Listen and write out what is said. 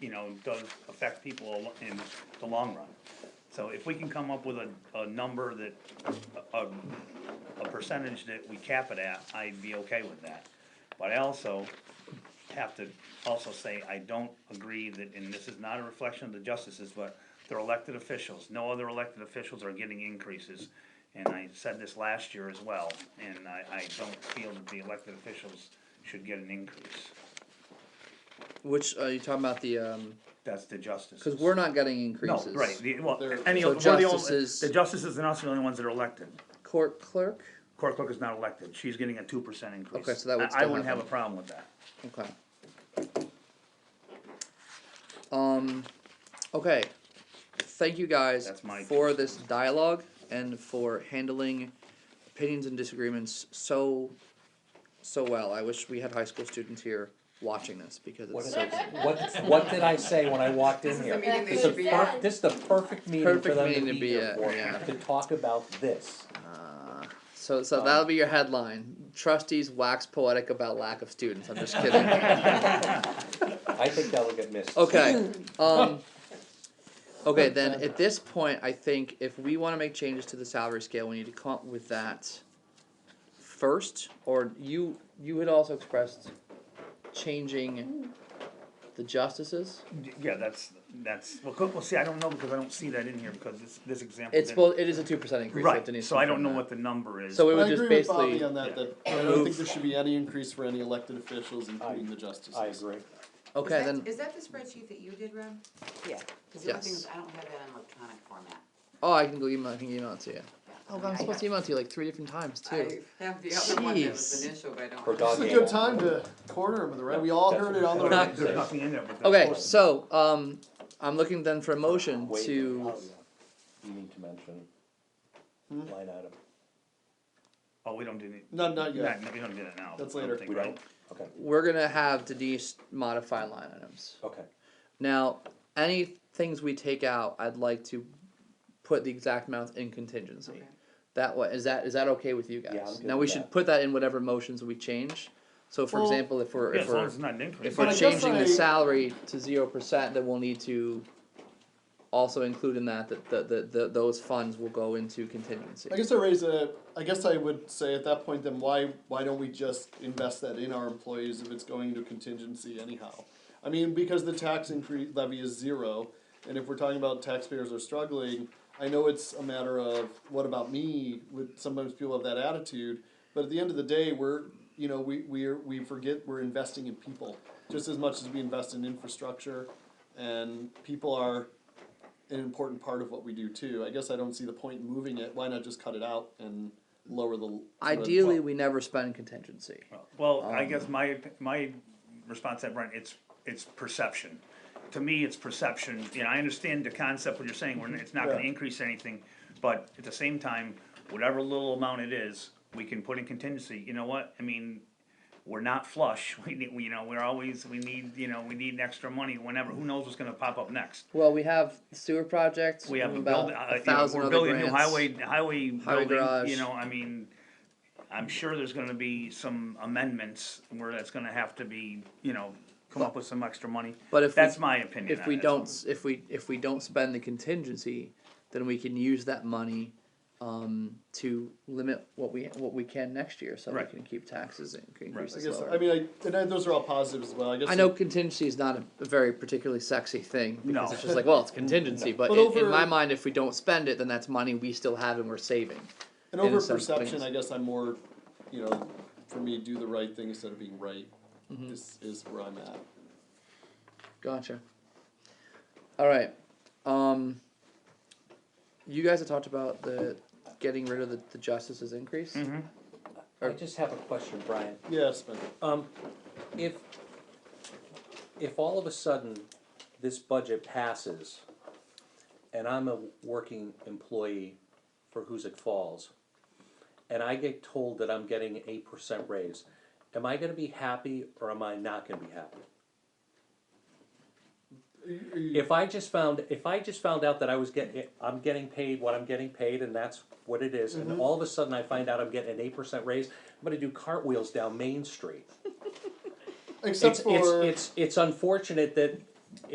you know, does affect people a lo- in the long run. So if we can come up with a, a number that, a, a percentage that we cap it at, I'd be okay with that. But I also have to also say, I don't agree that, and this is not a reflection of the justices, but they're elected officials, no other elected officials are getting increases. And I said this last year as well, and I, I don't feel that the elected officials should get an increase, Which are you talking about the? um that's the justices. Because we're not getting No, increases. right, the, well, They're- any So of, we're the only, justices- the justices and us are the only ones that are elected. Court clerk. Court clerk is not elected, she's getting a two percent increase. Okay, so that would I- I still wouldn't have a happen. problem with that. Okay. Um. Okay. Thank you guys That's my- for this dialogue and for handling opinions and disagreements so so well. I wish we had high school students here watching this because What, it's is so it? what, what did I say when I walked in This is here? the meeting they This should is be per- at. this is the perfect meeting for Perfect them meeting to be here for, yeah. to talk about this. Uh, so so that'll be your headline. Trustees wax poetic about lack of students. I'm just kidding. I think that'll get missed. Okay. Um, okay, then at this point, I think if we want to make changes to the salary scale, we need to come up with that first. Or you you had also expressed changing the justices. Yeah, that's, that's, well, co- well, see, I don't know, because I don't see that in here, because this, this example. It's didn't- well, it is a two percent increase. so Right, Denise so I don't confirmed know that. what the number is. So we would I just agree with basically Bobby on that, that I don't think there should be any increase for any elected officials, including the justices. I agree. okay Is that- then. Is that the spreadsheet that you did, Rob? Yeah. Cause the only thing Yes. is, I don't have that in electronic format. Oh, I can go email. I can email it to you. Yeah. Oh, but I'm supposed to email it to you like three different times too. I have the other one that was Jeez. initial, but I don't. For have- dog This is a good time to corner him, right? We all heard it on the Not- right. There's nothing in there, but that's. Okay, what- so um, I'm looking then for a motion Wait, to. oh, yeah. You need to mention Hmm? line item. Oh, we don't do it. No, not yet. No, we don't do that now. That's I don't later. think, We right? don't? Okay, We're gonna have Denise modify line items. okay. Now, any things we take out, I'd like to put the exact amount in contingency. Okay. That way, is that is that okay with you guys? Yeah, I'm good now we with should that. put that in whatever motions we change. So, for Well- example, if we're Yeah, if as long we're as it's not an increase. if But we're I guess changing I- the salary to zero percent, then we'll need to also include in that that the, the, the those funds will go into contingency. I guess I raise a, I guess I would say at that point, then why, why don't we just invest that in our employees if it's going to contingency anyhow? I mean, because the tax increase levy is zero, and if we're talking about taxpayers are struggling, I know it's a matter of, what about me, with, sometimes people have that attitude, but at the end of the day, we're, you know, we, we're, we forget we're investing in people, just as much as we invest in infrastructure, and people are, an important part of what we do too. I guess I don't see the point in moving it. Why not just cut it out and lower the? Ideally, we never spend contingency. Well, I guess my, my response to that, Brent, it's, it's perception. To me, it's perception, you know, I understand the concept, what you're saying, we're, it's not gonna Yeah. increase anything, but at the same time, whatever little amount it is, we can put in contingency, you know what, I mean, we're not flush, we need, we- you know, we're always, we need, you know, we need extra money whenever, who knows what's gonna pop up next? Well, we have sewer projects. We have a about build, uh, a you know, thousand we're other building a new grants. highway, highway building, you garage. know, I mean, I'm sure there's gonna be some amendments where that's gonna have to be, you know, come up with some extra money. But if we- That's my opinion If on we it. don't, s- if we if we don't spend the contingency, then we can use that money um, to limit what we what we can next year, so Right. we can keep taxes and I increases guess lower. I mean I, and I, those are all positives as well. I guess I know contingency is not a, a very particularly sexy thing because No. it's just like, well, it's contingency. But, But in, in over- my mind, if we don't spend it, then that's money we still have and we're saving. And in over some perception, things. I guess I'm more, you know, for me, do the right thing instead of being right. Is is where I'm at. Gotcha. All right. Um, you guys have talked about the getting rid of the, the justices increase. Mhm. I just have a question, Brian. Yeah, spend. Um, if, if all of a sudden this budget passes and I'm a working employee for Hoosick Falls and I get told that I'm getting an eight percent raise, am I gonna be happy or am I not gonna be happy? If I just found, if I just found out that I was getting, I'm getting paid what I'm getting paid and that's what it is, Mm-hmm. and all of a sudden I find out I'm getting an eight percent raise, I'm gonna do cartwheels down Main Street Except it's, for it's, it's, it's unfortunate that